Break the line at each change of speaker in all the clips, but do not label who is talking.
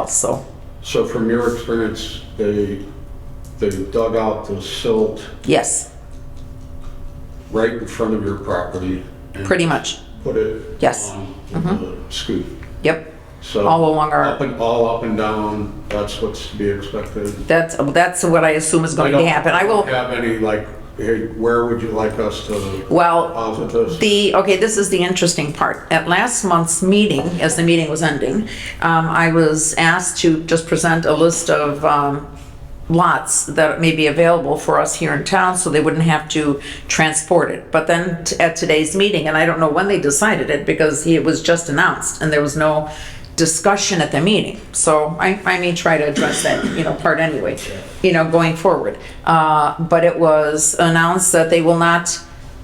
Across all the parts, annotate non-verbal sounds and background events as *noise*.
else, so.
So from your experience, they, they dug out the silt
Yes,
right in front of your property and
pretty much.
put it
Yes.
on the scoop.
Yep.
So
All along our-
up and all up and down. That's what's to be expected.
That's, that's what I assume is
I
going
don't
to happen. I will,
Have any like, hey, where would you like us to
well,
deposit this?
the, okay, this is the interesting part. At last month's meeting, as the meeting was ending, um, I was asked to just present a list of, um, lots that may be available for us here in town, so they wouldn't have to transport it. But then t- at today's meeting, and I don't know when they decided it, because it was just announced, and there was no discussion at the meeting. So I, I may try to address that, you know, part anyway, you know, going forward. Uh, but it was announced that they will not,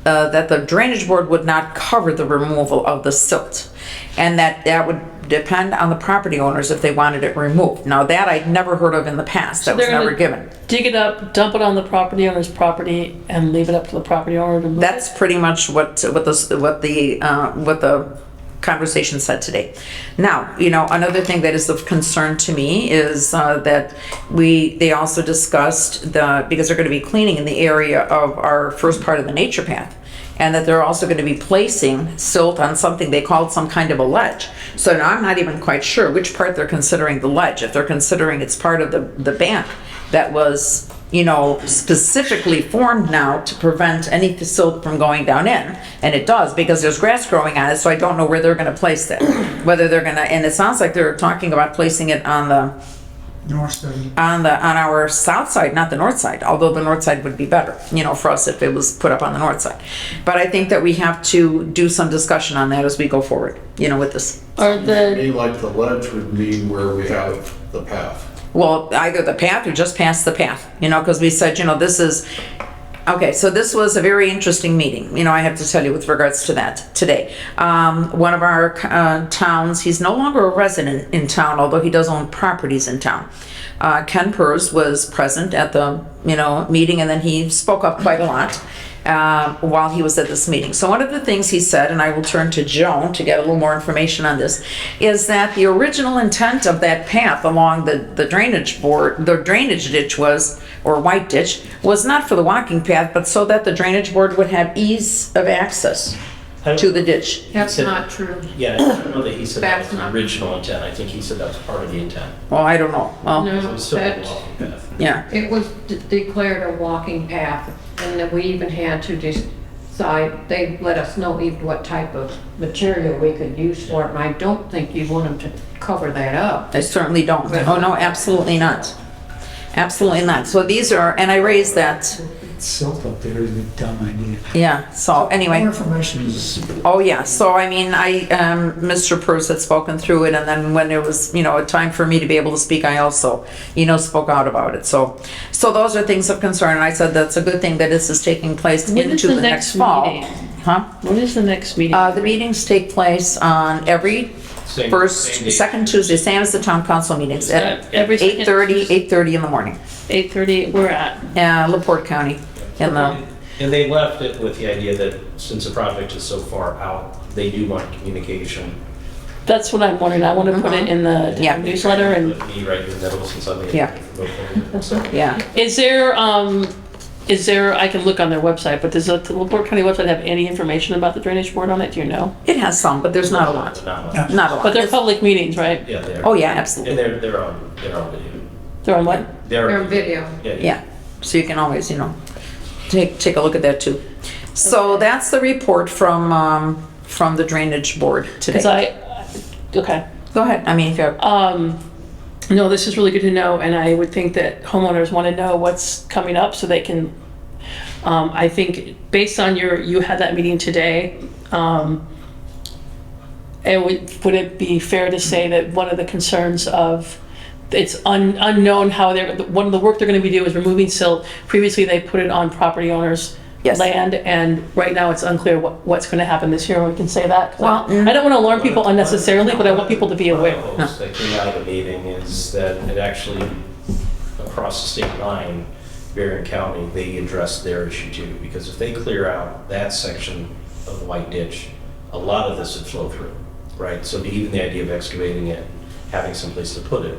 uh, that the drainage board would not cover the removal of the silt. And that that would depend on the property owners if they wanted it removed. Now, that I'd never heard of in the past. That was
They're gonna
never given.
Dig it up, dump it on the property owner's property, and leave it up to the property owner to move it.
That's pretty much what, what the, what the, uh, what the conversation said today. Now, you know, another thing that is of concern to me is, uh, that we, they also discussed the, because they're gonna be cleaning in the area of our first part of the nature path. And that they're also gonna be placing silt on something they called some kind of a ledge. So now I'm not even quite sure which part they're considering the ledge, if they're considering it's part of the, the bank that was you know, specifically formed now to prevent any silt from going down in. And it does because there's grass growing on it, so I don't know where they're gonna place it. Whether they're gonna, and it sounds like they're talking about placing it on the,
North Study.
on the, on our south side, not the north side, although the north side would be better, you know, for us if it was put up on the north side. But I think that we have to do some discussion on that as we go forward, you know, with this.
Or the
Me like the ledge would mean where we have the path.
well, either the path or just past the path, you know, because we said, you know, this is, okay, so this was a very interesting meeting, you know, I have to tell you with regards to that today. Um, one of our, uh, towns, he's no longer a resident in town, although he does own properties in town. Uh, Ken Pers was present at the, you know, meeting and then he spoke up quite a lot uh, while he was at this meeting. So one of the things he said, and I will turn to Joan to get a little more information on this, is that the original intent of that path along the, the drainage board, the drainage ditch was, or white ditch, was not for the walking path, but so that the drainage board would have ease of access to the ditch.
That's
said-
not true.
Yeah, I don't know that he said that was
That's
the
not-
original intent. I think he said that was part of the intent.
Well, I don't know. Well,
It
No,
was still a
that,
walking path.
yeah,
it was de- declared a walking path, and that we even had to decide, they let us know even what type of material we could use for it, and I don't think you want them to cover that up.
I certainly don't. Oh, no, absolutely not. Absolutely not. So these are, and I raised that,
Silt up there is a dumb idea.
yeah, so anyway.
More information is
Oh, yeah, so I mean, I, um, Mr. Purse had spoken through it, and then when it was, you know, a time for me to be able to speak, I also, you know, spoke out about it, so. So those are things of concern, and I said that's a good thing that this is taking place
When is
into
the
the next
next
fall.
meeting?
Huh?
when is the next meeting?
Uh, the meetings take place on every
Same- same
first,
date.
second Tuesday, same as the town council meetings, at
Uh, Every second
8:30,
Tuesday.
8:30 in the morning,
Eight thirty. We're at.
uh, LaPorte County, in the,
And they left it with the idea that since the project is so far out, they do want communication.
That's what I'm wondering. I want to put it in the
Uh-huh. Yeah.
newsletter. And
With me right in the middle since I'm the.
Yeah. *laughs* yeah.
is there um, is there? I can look on their website, but does the LaPorte County website have any information about the drainage board on it? Do you know?
It has some, but there's not a lot,
Not much.
not a lot.
But they're public meetings, right?
Yeah, they're.
Oh, yeah, absolutely.
And they're, they're on, they're on video.
They're on what?
Their video.
Yeah, so you can always, you know, take, take a look at that too. So that's the report from, um, from the drainage board today.
Because I okay.
Go ahead, I mean, if you have,
Um, no, this is really good to know, and I would think that homeowners want to know what's coming up so they can. Um, I think based on your, you had that meeting today. Um, it would, would it be fair to say that one of the concerns of it's un, unknown how they're one of the work they're going to be doing is removing silt. Previously, they put it on property owners.
Yes.
Land and right now it's unclear what, what's going to happen this year. We can say that. 'Cause I-
Well,
I don't want to alarm people unnecessarily, but I want people to be aware.
One of the hopes that came out of the meeting is that it actually, across the state line, Berrien County, they addressed their issue too. Because if they clear out that section of the White Ditch, a lot of this would flow through, right? So even the idea of excavating it, having someplace to put it,